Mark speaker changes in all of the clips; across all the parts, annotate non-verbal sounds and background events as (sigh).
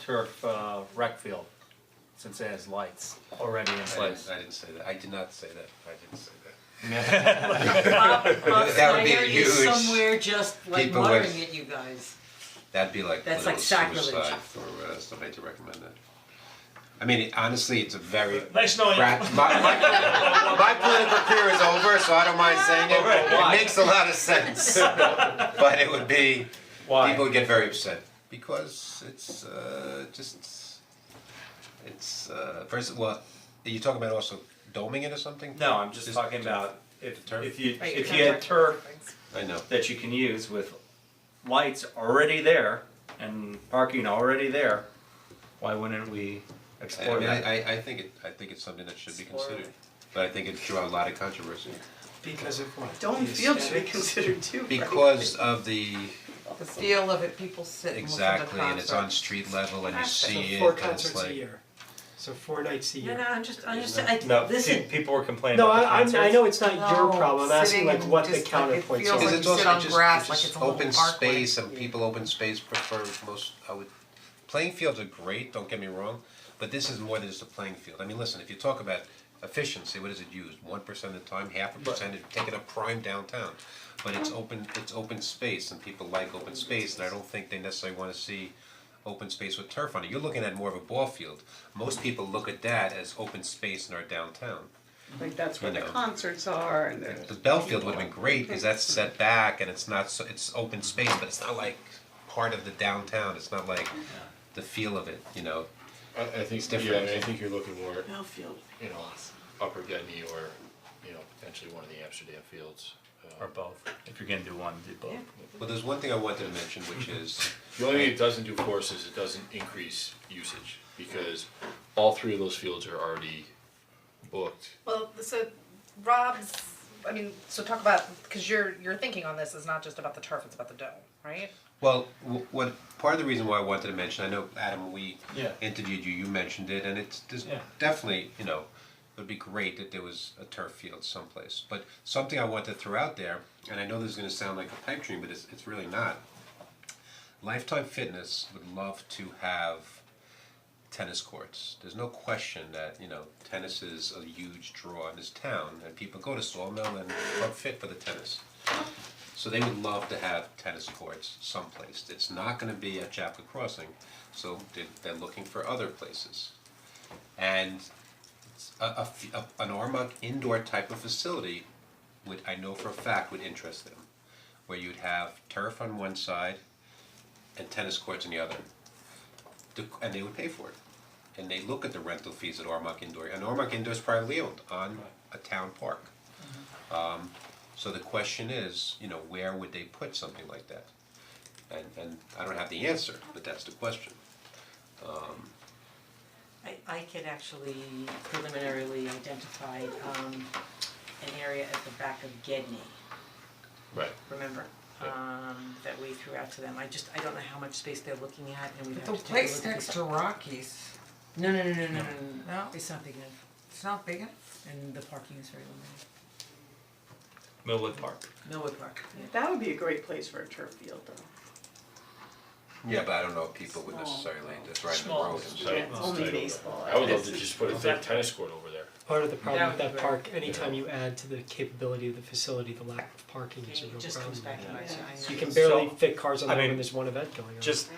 Speaker 1: turf uh, rec field, since it has lights already in
Speaker 2: I didn't,
Speaker 1: place.
Speaker 2: I didn't say that, I did not say that, I didn't say that.
Speaker 3: Bob, Bob
Speaker 2: That would be
Speaker 3: Snyder is
Speaker 2: huge.
Speaker 3: somewhere just like
Speaker 2: People would-
Speaker 3: muttering at you guys.
Speaker 2: That'd be like
Speaker 3: That's
Speaker 2: political
Speaker 3: like sacrilege.
Speaker 2: suicide for uh, somebody to recommend that. I mean, it- honestly, it's a very
Speaker 4: Nice knowing you.
Speaker 2: crap, my, my, my political career is over, so I don't mind saying it, it makes a lot of sense. But it would be, people would get very upset, because it's uh just, it's uh, first, well, are you talking about also doming it or something?
Speaker 4: No, I'm just
Speaker 2: Just-
Speaker 4: talking about if
Speaker 2: Turf?
Speaker 4: if you
Speaker 3: Right,
Speaker 4: if
Speaker 3: you're
Speaker 4: you had
Speaker 3: talking
Speaker 4: turf
Speaker 2: I know.
Speaker 4: that you can use with lights already there and parking already there, why wouldn't we
Speaker 2: I I
Speaker 4: explore
Speaker 2: mean,
Speaker 4: that?
Speaker 2: I, I, I think it, I think it's something that should be considered, but I think it drew a lot of controversy.
Speaker 5: Because of what?
Speaker 6: Don't
Speaker 5: The
Speaker 6: feel should be
Speaker 5: aesthetics?
Speaker 6: considered too. right?
Speaker 2: Because of the,
Speaker 6: The feel of it, people sit and listen to concerts.
Speaker 2: exactly, and it's on street level and you
Speaker 6: Concert.
Speaker 2: see
Speaker 6: So
Speaker 2: it,
Speaker 5: Four
Speaker 2: and it's
Speaker 5: concerts a
Speaker 2: like,
Speaker 5: year, so four nights a
Speaker 3: No,
Speaker 5: year.
Speaker 3: no, I'm just, I'm just, I,
Speaker 4: (laughs) No,
Speaker 3: this
Speaker 4: pe-
Speaker 3: is,
Speaker 4: people were complaining
Speaker 5: No,
Speaker 4: about the
Speaker 5: I I'm I
Speaker 4: concerts.
Speaker 5: know it's not your
Speaker 6: No,
Speaker 5: problem, I'm asking
Speaker 6: sitting
Speaker 5: like what the
Speaker 6: just like it
Speaker 5: counterpoints
Speaker 6: feels
Speaker 5: are.
Speaker 2: is
Speaker 6: like
Speaker 2: it
Speaker 6: you sit
Speaker 2: also
Speaker 6: on
Speaker 2: just,
Speaker 6: grass
Speaker 2: it's
Speaker 6: like
Speaker 2: just
Speaker 6: it's a little
Speaker 2: open
Speaker 6: parkway.
Speaker 2: space and people open space prefer most, I would, playing fields are great, don't get me wrong, but this is more than just a playing field, I mean, listen, if you talk about efficiency, what is it used, one percent of the time, half a percent, if you take it up prime downtown, but it's open, it's open space and people like open space, and I don't think they necessarily wanna see open space with turf on it, you're looking at more of a ball field, most people look at that as open space in our downtown.
Speaker 7: Like that's where
Speaker 2: You
Speaker 7: the
Speaker 2: know.
Speaker 7: concerts are and there's
Speaker 2: The Bellfield would have been great, because that's set back and it's not so, it's open space, but it's not like part of the downtown, it's not like the feel of it, you know?
Speaker 8: I, I think, yeah,
Speaker 2: different.
Speaker 8: I mean, I think you're looking more,
Speaker 6: Millfield.
Speaker 8: you know, Upper Gedney or, you know, potentially one of the Amsterdam fields.
Speaker 4: Or both, if you're gonna do one, do both.
Speaker 2: Well, there's one thing I wanted to mention, which is,
Speaker 8: The only thing it doesn't do for us is it doesn't increase usage, because all three of those fields are already booked.
Speaker 9: Well, so Rob's, I mean, so talk about, cause your, your thinking on this is not just about the turf, it's about the dome, right?
Speaker 2: well, w- what, part of the reason why I wanted to mention, I know, Adam, we
Speaker 4: Yeah.
Speaker 2: interviewed you, you mentioned it, and it's, there's
Speaker 4: Yeah.
Speaker 2: definitely, you know, it would be great that there was a turf field someplace, but something I wanted to throw out there, and I know this is gonna sound like a pipe dream, but it's, it's really not. Lifetime Fitness would love to have tennis courts. There's no question that, you know, tennis is a huge draw in this town and people go to Sawmill and Club Fit for the tennis. So they would love to have tennis courts someplace. It's not gonna be at Chapel Crossing, so they- they're looking for other places. And a, a f- a- an Ormuck indoor type of facility would, I know for a fact, would interest them. Where you'd have turf on one side and tennis courts on the other the- and they would pay for it. And they look at the rental fees at Ormoc Indoor, and Ormoc Indoor is privately owned on a town park. Um, so the question is, you know, where would they put something like that? And, and I don't have the answer, but that's the question.
Speaker 3: I, I could actually preliminarily identify, um, an area at the back of Gedney,
Speaker 8: Right.
Speaker 3: remember? Um, that we threw out to them, I just, I don't know how much space they're looking at and we have
Speaker 6: The
Speaker 3: to take a look at
Speaker 6: place
Speaker 3: the-
Speaker 6: next to Rockies,
Speaker 3: No, no, no, no, no, no,
Speaker 6: No.
Speaker 3: it's not big enough,
Speaker 6: it's not big enough.
Speaker 3: and the parking is very limited,
Speaker 4: Millwood Park.
Speaker 3: Millwood Park, yeah.
Speaker 7: that would be a great place for a turf field though.
Speaker 2: Yeah, but I don't know if people would necessarily, that's right in the
Speaker 7: Small.
Speaker 2: road.
Speaker 8: So-
Speaker 7: Yeah, it's only
Speaker 8: so-
Speaker 7: baseball.
Speaker 8: I would love to just put a thick tennis court over there.
Speaker 5: Part of the problem with
Speaker 6: That would be
Speaker 5: that park, anytime you add to the capability of the facility, the lack of parking is a
Speaker 3: It
Speaker 5: real
Speaker 3: just comes
Speaker 5: problem.
Speaker 3: back and I, I
Speaker 5: You
Speaker 3: know.
Speaker 5: can barely
Speaker 4: So,
Speaker 5: fit cars on
Speaker 4: I
Speaker 5: the road
Speaker 4: mean,
Speaker 5: when there's one event going on.
Speaker 4: Just,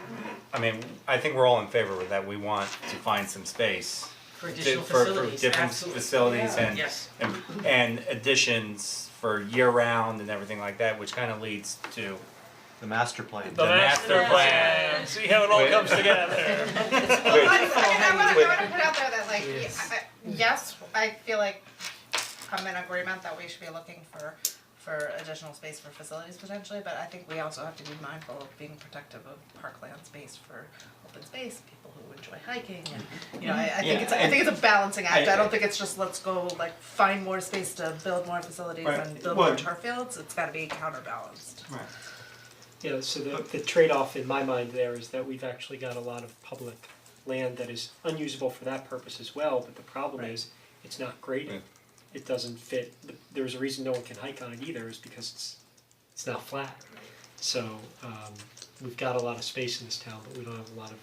Speaker 4: I mean, I think we're all in favor of that, we want to find some space.
Speaker 3: For
Speaker 4: di-
Speaker 3: additional
Speaker 4: for-
Speaker 3: facilities,
Speaker 4: For different
Speaker 3: absolutely.
Speaker 4: facilities and
Speaker 3: Yes.
Speaker 4: and and additions for year round and everything like that, which kind of leads to
Speaker 1: The master plan.
Speaker 4: the master plan.
Speaker 5: See how it all comes together.
Speaker 3: (laughs)
Speaker 9: I, I wanna,
Speaker 4: Wait.
Speaker 9: I wanna put out there that like, yeah,
Speaker 5: Yes.
Speaker 9: I- yes, I feel like I'm in agreement that we should be looking for, for additional space for facilities potentially, but I think we also have to be mindful of being protective of parkland space for open space, people who enjoy hiking and, you know, I, I
Speaker 4: Yeah,
Speaker 9: think it's, I
Speaker 4: and-
Speaker 9: think it's a balancing act,
Speaker 4: I-
Speaker 9: I don't think it's just let's go like find more space to build more facilities
Speaker 4: Right.
Speaker 9: and build more
Speaker 4: Well-
Speaker 9: turf fields, it's gotta be counterbalanced.
Speaker 5: Yeah, so the the trade-off in my mind there is that we've actually got a lot of public land that is unusable for that purpose as well, but the problem is, it's not graded.
Speaker 4: Right.
Speaker 5: It doesn't fit, the- there's a reason no one can hike on it either, is because it's, it's not flat. So, um, we've got a lot of space in this town, but we don't have a lot of